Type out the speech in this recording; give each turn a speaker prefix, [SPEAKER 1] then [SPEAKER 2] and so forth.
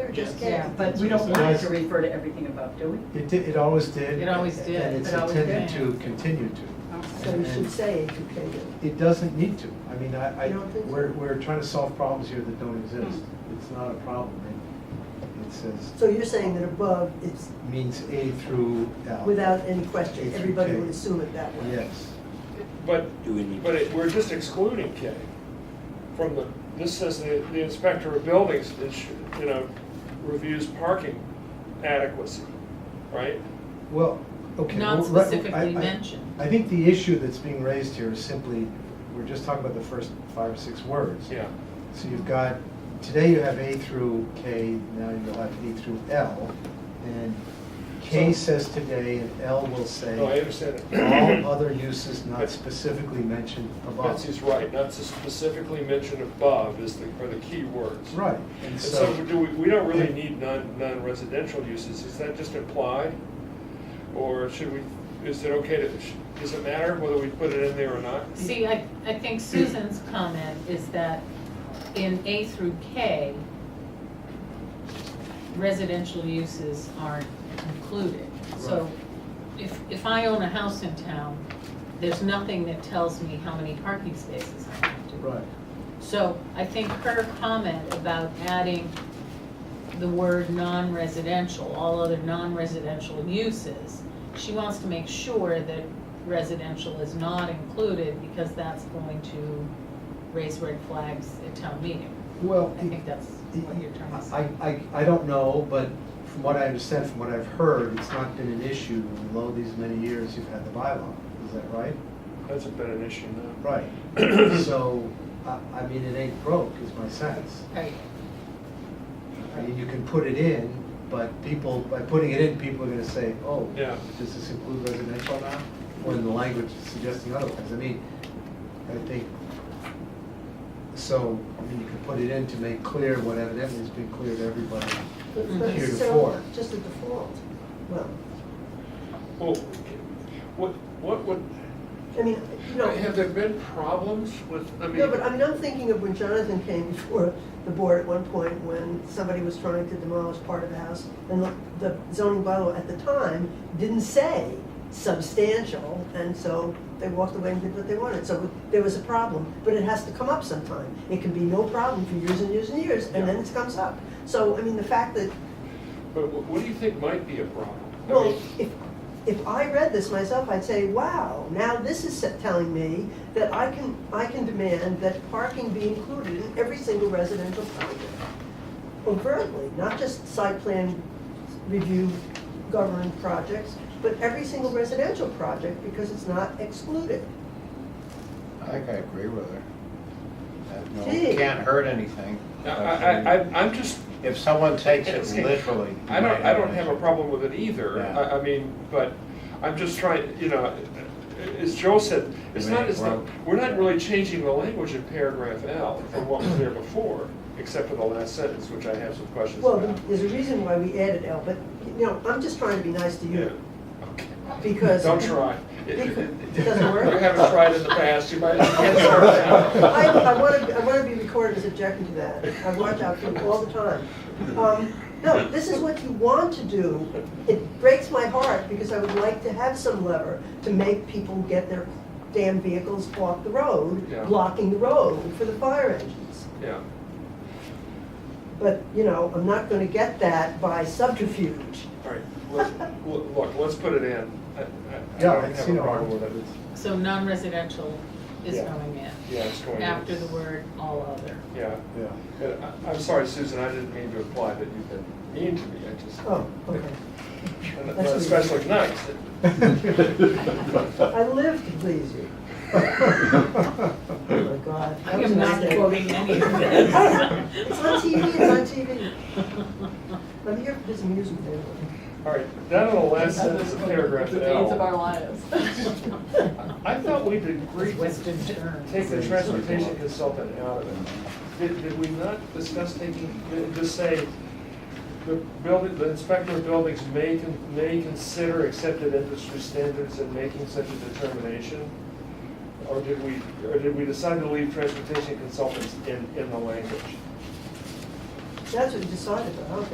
[SPEAKER 1] or just
[SPEAKER 2] Yes.
[SPEAKER 1] get?
[SPEAKER 3] Yeah, but we don't want it to refer to everything above, do we?
[SPEAKER 2] It did, it always did.
[SPEAKER 4] It always did.
[SPEAKER 2] And it's
[SPEAKER 3] It always
[SPEAKER 2] intended
[SPEAKER 4] did.
[SPEAKER 2] to continue to.
[SPEAKER 1] So we should say educated.
[SPEAKER 2] It doesn't need to. I mean, I, I,
[SPEAKER 1] You don't think so?
[SPEAKER 2] we're, we're trying to solve problems here that don't
[SPEAKER 4] Hmm.
[SPEAKER 2] exist. It's not a problem. It- It says,
[SPEAKER 1] So you're saying that above, it's
[SPEAKER 2] means A through L.
[SPEAKER 1] without any
[SPEAKER 2] A
[SPEAKER 1] question,
[SPEAKER 2] through
[SPEAKER 1] everybody
[SPEAKER 2] K.
[SPEAKER 1] would assume it that way.
[SPEAKER 2] Yes.
[SPEAKER 5] But,
[SPEAKER 6] Do we need-
[SPEAKER 5] but it- we're just excluding K from the, this says the the inspector of buildings, is, you know, reviews parking adequacy, right?
[SPEAKER 2] Well, okay. well,
[SPEAKER 4] Not
[SPEAKER 2] let- I-
[SPEAKER 4] specifically
[SPEAKER 2] I-
[SPEAKER 4] mentioned.
[SPEAKER 2] I think the issue that's being raised here is simply, we're just talking about the first five or six words.
[SPEAKER 5] Yeah.
[SPEAKER 2] So you've got, today you have A through K, now you'll have A through L. And K
[SPEAKER 5] So-
[SPEAKER 2] says today and L will say.
[SPEAKER 5] No, I understand it.
[SPEAKER 2] All other uses not specifically mentioned above.
[SPEAKER 5] Betsy's right, not to specifically mentioned above is the, are the key words.
[SPEAKER 2] Right, and
[SPEAKER 5] And so
[SPEAKER 2] so,
[SPEAKER 5] do we, we don't really need non, non-residential uses, is that just implied? Or should we, is it okay to, does it matter whether we put it in there or not?
[SPEAKER 4] See, I, I think Susan's comment is that in A through K, residential uses aren't included. So if, if I own a house in town, there's nothing that tells me how many parking spaces I have to.
[SPEAKER 2] right,
[SPEAKER 4] So I think her comment about adding the word non-residential, all other non-residential uses, she wants to make sure that residential is not included because that's going to raise red flags at town meeting.
[SPEAKER 2] well.
[SPEAKER 4] I think that's what you're trying to say.
[SPEAKER 2] I, I, I don't know, but from what I understand, from what I've heard, it's not been an issue in lo these many years you've had the bylaw, is that right?
[SPEAKER 5] Hasn't been an issue now.
[SPEAKER 2] Right. So, I, I mean, it ain't broke is my sense.
[SPEAKER 4] Right.
[SPEAKER 2] I mean, you can put it in, but people, by putting it in, people are gonna say, oh,
[SPEAKER 5] Yeah.
[SPEAKER 2] does this include residential now? When the language is suggesting otherwise, I mean, I think, so, I mean, you can put it in to make clear what evidently has been clear to everybody.
[SPEAKER 1] But it's not
[SPEAKER 2] Here to
[SPEAKER 1] necessarily
[SPEAKER 2] four.
[SPEAKER 1] Just a default. Well,
[SPEAKER 5] Well, what, what would,
[SPEAKER 1] I mean, you know.
[SPEAKER 5] have there been problems with, I mean.
[SPEAKER 1] No, but I mean, I'm thinking of when Jonathan came before the board at one point, when somebody was trying to demolish part of the house, and the- the zoning bylaw at the time didn't say substantial, and so they walked away and did what they wanted, so there was a problem, but it has to come up sometime. It can be no problem for years and years and years, and then it comes up. So, I mean, the fact that
[SPEAKER 5] But wh- what do you think might be a problem? I
[SPEAKER 1] well,
[SPEAKER 5] mean,
[SPEAKER 1] if, if I read this myself, I'd say, wow, now this is se- telling me that I can, I can demand that parking be included in every single residential project. Overtly, not just site plan review government projects, but every single residential project because it's not excluded.
[SPEAKER 7] I think I agree with her. That, no,
[SPEAKER 1] Gee.
[SPEAKER 7] Can't hurt anything.
[SPEAKER 5] I, I, I, I'm just,
[SPEAKER 7] If someone takes it
[SPEAKER 5] It's-
[SPEAKER 7] literally.
[SPEAKER 5] I
[SPEAKER 7] you
[SPEAKER 5] don't,
[SPEAKER 7] might
[SPEAKER 5] I don't
[SPEAKER 7] an
[SPEAKER 5] have a
[SPEAKER 7] issue.
[SPEAKER 5] problem with it either.
[SPEAKER 7] Yeah.
[SPEAKER 5] I, I mean, but I'm just trying, you know, as Joe said, it's not, it's not, we're not really changing the language in paragraph L from what was there before, except for the last sentence, which I have some questions
[SPEAKER 1] Well,
[SPEAKER 5] about.
[SPEAKER 1] there's a reason why we added L, but, you know, I'm just trying to be nice to
[SPEAKER 5] Yeah.
[SPEAKER 1] you because.
[SPEAKER 5] Don't try.
[SPEAKER 1] It doesn't work.
[SPEAKER 5] You haven't tried in the past, you might as well start now.
[SPEAKER 1] I, I want to, I want to be recorded as objecting to that. I watch out for you all the time. Um, No, this is what you want to do. It breaks my heart because I would like to have some lever to make people get their damn vehicles off the road,
[SPEAKER 5] Yeah.
[SPEAKER 1] blocking the road for the fire engines.
[SPEAKER 5] Yeah.
[SPEAKER 1] But, you know, I'm not going to get that by subterfuge.
[SPEAKER 5] All right, let's, look, look, let's put it in. I- I- I
[SPEAKER 2] Yeah,
[SPEAKER 5] don't
[SPEAKER 2] I'd
[SPEAKER 5] have
[SPEAKER 2] see
[SPEAKER 5] a
[SPEAKER 2] no
[SPEAKER 5] problem
[SPEAKER 2] harm.
[SPEAKER 5] with it.
[SPEAKER 4] So non-residential is
[SPEAKER 5] Yeah.
[SPEAKER 4] going in,
[SPEAKER 5] Yeah, it's going in.
[SPEAKER 4] after the word all other.
[SPEAKER 5] Yeah.
[SPEAKER 2] Yeah.
[SPEAKER 5] And I- I'm sorry, Susan, I didn't mean to imply that you've been mean to me, I just,
[SPEAKER 1] Oh, okay. that's
[SPEAKER 5] and not
[SPEAKER 1] what you-
[SPEAKER 5] especially
[SPEAKER 1] I
[SPEAKER 5] nice.
[SPEAKER 1] live to please you. Oh, my God.
[SPEAKER 4] I am not
[SPEAKER 1] That was a mistake.
[SPEAKER 4] quoting any of this.
[SPEAKER 1] It's on TV, it's on TV. I'm here for his amusement. anyway.
[SPEAKER 5] All right, down to the last sentence of paragraph L.
[SPEAKER 8] lives.
[SPEAKER 5] I thought we'd agreed to
[SPEAKER 4] Western terms.
[SPEAKER 5] take the transportation consultant out of it. Did, did we not discuss taking, did- just say, the building, the inspector of buildings may, con- may consider accepted industry standards in making such a determination? Or did we, or did we decide to leave transportation consultants in, in the language?
[SPEAKER 1] That's what you decided, though, huh?